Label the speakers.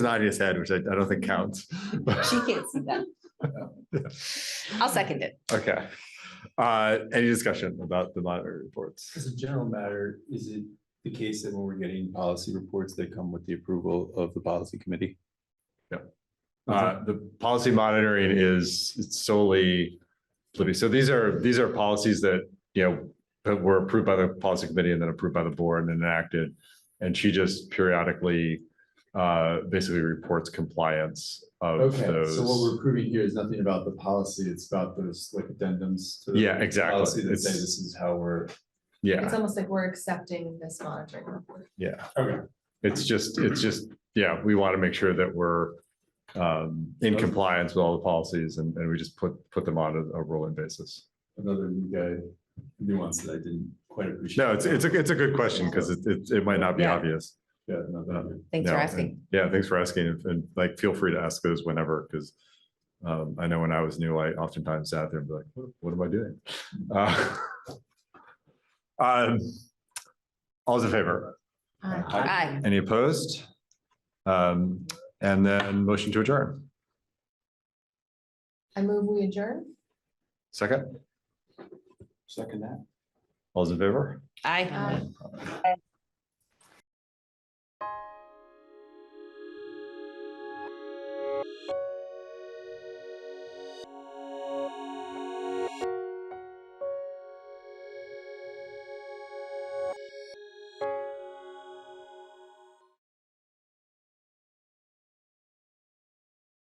Speaker 1: Nadia's head, which I, I don't think counts.
Speaker 2: She can't see that. I'll second it.
Speaker 1: Okay. Uh, any discussion about the monitoring reports?
Speaker 3: As a general matter, is it the case that when we're getting policy reports, they come with the approval of the policy committee? Uh-huh.
Speaker 1: Uh, the policy monitoring is it's solely, Libby, so these are, these are policies that, you know, that were approved by the policy committee and then approved by the board and enacted. And she just periodically, uh, basically reports compliance of
Speaker 3: Okay, so what we're
Speaker 1: those.
Speaker 3: approving here is nothing about the policy, it's about those like addendums to. the
Speaker 1: Yeah, exactly.
Speaker 3: Policy that say
Speaker 1: It's-
Speaker 3: this is how we're.
Speaker 1: Yeah,
Speaker 4: It's almost like we're accepting this monitoring report.
Speaker 1: yeah.
Speaker 3: Okay.
Speaker 1: It's just, it's just, yeah, we want to make sure that we're, um, in compliance with all the policies and, and we just put, put them on a- a rolling basis.
Speaker 3: Another new guy nuance that I didn't quite appreciate.
Speaker 1: No, it's, it's a, it's a good question because it, it, it might not be
Speaker 2: Yeah.
Speaker 1: obvious.
Speaker 3: Yeah, no, that-
Speaker 2: Thanks for
Speaker 1: No,
Speaker 2: asking.
Speaker 1: and- Yeah, thanks for asking. And- And like, feel free to ask those whenever, because um, I know when I was new, I oftentimes sat there and be like, "What- what am I doing? Uh, um, All's in favor?
Speaker 4: Uh,
Speaker 2: Aye.
Speaker 1: Any opposed? Um, and then motion to adjourn.
Speaker 4: I move we adjourn.
Speaker 1: Second,
Speaker 3: Second that.
Speaker 4: Uh,
Speaker 1: all's in favor?
Speaker 2: Aye.